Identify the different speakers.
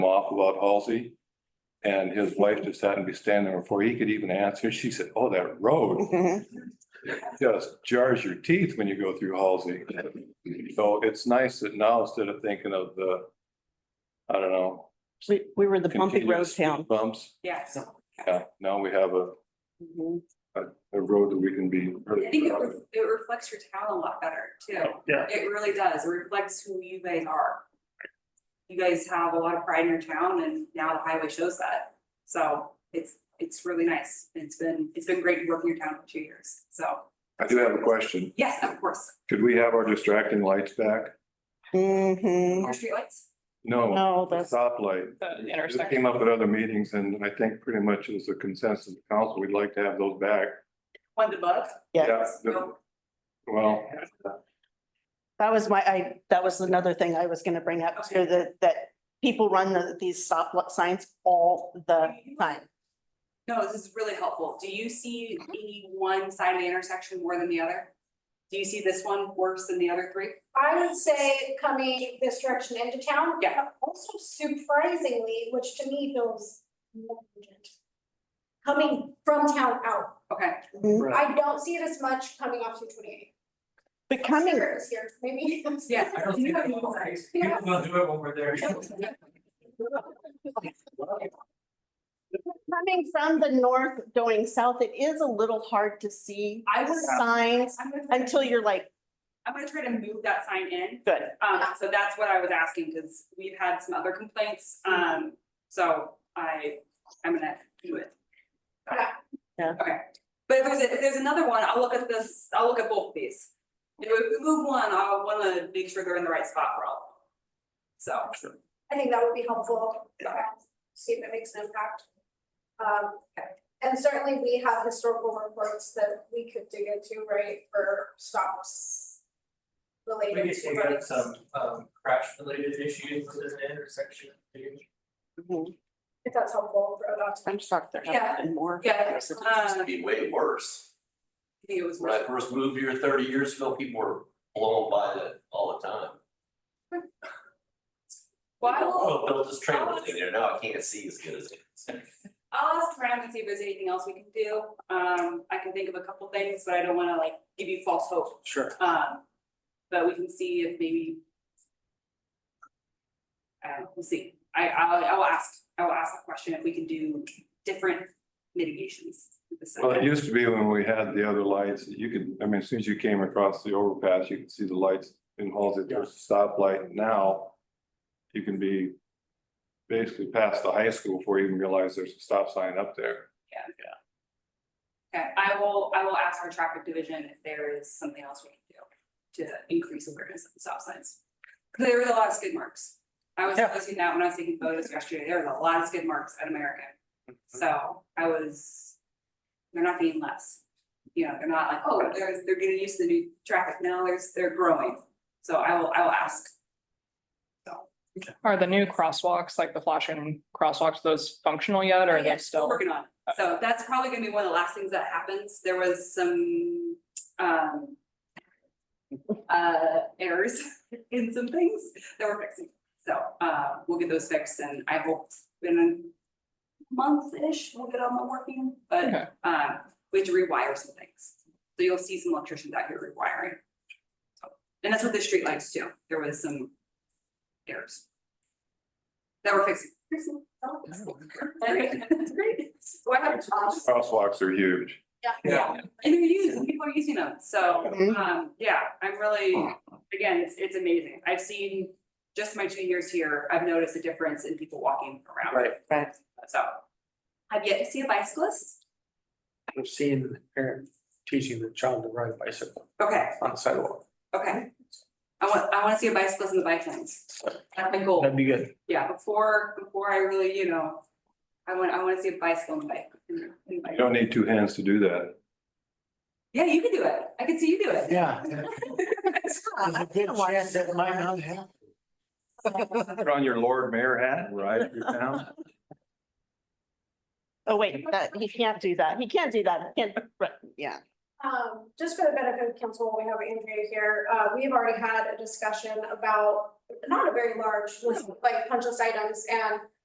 Speaker 1: talk about Halsey. And his wife just happened to be standing there before he could even answer. She said, oh, that road
Speaker 2: Mm-hmm.
Speaker 1: just jars your teeth when you go through Halsey. So it's nice that now instead of thinking of the, I don't know.
Speaker 3: We, we were the bumpy road
Speaker 1: continuous speed
Speaker 3: town.
Speaker 1: Bumps,
Speaker 2: Yes. Mm-hmm.
Speaker 1: yeah, now we have a,
Speaker 3: Mhm.
Speaker 1: a road that we can be.
Speaker 2: I think it, re- it reflects your town a lot better too.
Speaker 4: Yeah,
Speaker 2: It really does. It reflects who you guys are. You guys have a lot of pride in your town and now the highway shows that. So it's, it's really nice. It's been, it's been great working your town for two years. So,
Speaker 1: I do have a question.
Speaker 2: yes, of course.
Speaker 1: Could we have our distracting lights back?
Speaker 3: Mhm.
Speaker 2: Your streetlights?
Speaker 1: No.
Speaker 3: No,
Speaker 1: the
Speaker 3: that's,
Speaker 1: Stoplight.
Speaker 5: The
Speaker 1: This
Speaker 5: intersection.
Speaker 1: came up at other meetings and I think pretty much it was a consensus of the council, we'd like to have those back.
Speaker 2: One above?
Speaker 3: yeah,
Speaker 1: Yeah, the- Well,
Speaker 3: that was my, I, that was another thing I was gonna bring up too,
Speaker 2: Okay.
Speaker 3: that, that people run the, these stop lo- signs all the time.
Speaker 2: No, this is really helpful. Do you see any one side of the intersection more than the other? Do you see this one worse than the other three?
Speaker 6: I would say coming this direction into town.
Speaker 2: Yeah.
Speaker 6: but Also surprisingly, which to me feels negligent. Coming from town out.
Speaker 2: Okay,
Speaker 3: Mhm.
Speaker 4: right.
Speaker 6: I don't see it as much coming off two twenty eight.
Speaker 3: But coming,
Speaker 6: Here, maybe.
Speaker 2: yeah.
Speaker 7: I don't see that. People don't do it when we're there.
Speaker 3: coming from the north going south, it is a little hard to see
Speaker 2: I would-
Speaker 3: signs
Speaker 2: I'm gonna try to-
Speaker 3: until you're like,
Speaker 2: I'm gonna try to move that sign in.
Speaker 3: good.
Speaker 2: Um, so that's what I was asking, because we've had some other complaints, um, so I, I'm gonna do it.
Speaker 6: Yeah.
Speaker 3: Yeah.
Speaker 2: Okay, but if there's, a- if there's another one, I'll look at this, I'll look at both of these. If we move one, I wanna make sure they're in the right spot for all. of them. So. um,
Speaker 6: I think that would be helpful, uh, see if it makes an impact. Um, and certainly we have historical reports that we could dig into, right, for stops.
Speaker 7: We
Speaker 6: Related
Speaker 7: get,
Speaker 6: to.
Speaker 7: we got
Speaker 6: roads.
Speaker 7: some, um, crash related issues within the intersection.
Speaker 3: Mhm.
Speaker 6: If that's helpful for adults.
Speaker 3: I'm shocked there
Speaker 2: Yeah.
Speaker 3: haven't been more.
Speaker 2: Yeah, uh, I
Speaker 8: It'd be way worse.
Speaker 2: think it was
Speaker 7: When I first moved here thirty years ago, people were blown by that all the time.
Speaker 2: Well, I will-
Speaker 7: Oh, built this trailer thing there, now I can't see as good as it is.
Speaker 2: I'll ask around and see if there's anything else we can do. Um, I can think of a couple things, but I don't wanna like give you false hope.
Speaker 7: Sure.
Speaker 2: Um, but we can see if maybe. I don't know, we'll see. I, I'll, I'll ask, I will ask the question if we can do different mitigations. with the
Speaker 1: well, it
Speaker 2: sign.
Speaker 1: used to be when we had the other lights, you could, I mean, as soon as you came across the overpass, you could see the lights in Halsey, there's a stoplight now. You can be basically past the high school before you even realize there's a stop sign up there.
Speaker 2: Okay, I will, I will ask our traffic division if there is something else we can do to increase awareness of the stop signs. 'Cause there was a lot of skid marks. I was
Speaker 5: Yeah.
Speaker 2: posting that when I was taking photos yesterday, there was a lot of skid marks at American. So I was, they're not being less, you know, they're not like, oh, they're, they're getting used to the new traffic, now there's, they're growing. So I will, I will ask.
Speaker 5: Are the new crosswalks, like the flashing crosswalks, those functional yet or are
Speaker 2: Yeah,
Speaker 5: they still?
Speaker 2: Working on it. So that's probably gonna be one of the last things that happens. There was some, um, uh, errors in some things that we're fixing. So, uh, we'll get those fixed and I hope in a month-ish, we'll get on the working,
Speaker 5: Okay.
Speaker 2: but, um, we have to rewire some things. So you'll see some electricians out here rewiring. So, And that's with the streetlights too. There was some errors that we're fixing. Fixing. Oh, fixing. Alright, That's great. So I have a job.
Speaker 1: Crosswalks are huge.
Speaker 2: Yeah, and they're used, and people are using them, so, um, yeah, I'm really, again, it's, it's amazing. I've seen just my two years here, I've noticed a difference in people walking around.
Speaker 4: Right.
Speaker 3: Right.
Speaker 2: So, I've yet to see a bicyclist.
Speaker 4: I've seen parent teaching the child to ride a bicycle
Speaker 2: Okay,
Speaker 4: on the sidewalk.
Speaker 2: okay. I want, I wanna see a bicyclist in the bike lanes. That's my goal.
Speaker 4: That'd be good.
Speaker 2: Yeah, before, before I really, you know, I want, I wanna see a bicycle in the bike. in the- in the bike.
Speaker 1: You don't need two hands to do that.
Speaker 2: Yeah, you can do it. I can see you do it.
Speaker 4: Yeah. a good chance that might not happen.
Speaker 1: Put on your Lord Mayor hat and ride through town.
Speaker 3: Oh, wait, that, he can't do that. He can't do that. He can't, right, yeah.
Speaker 6: Um, just for the benefit of council, while we have Andrea here, uh, we have already had a discussion about not a very large list of like punch list items and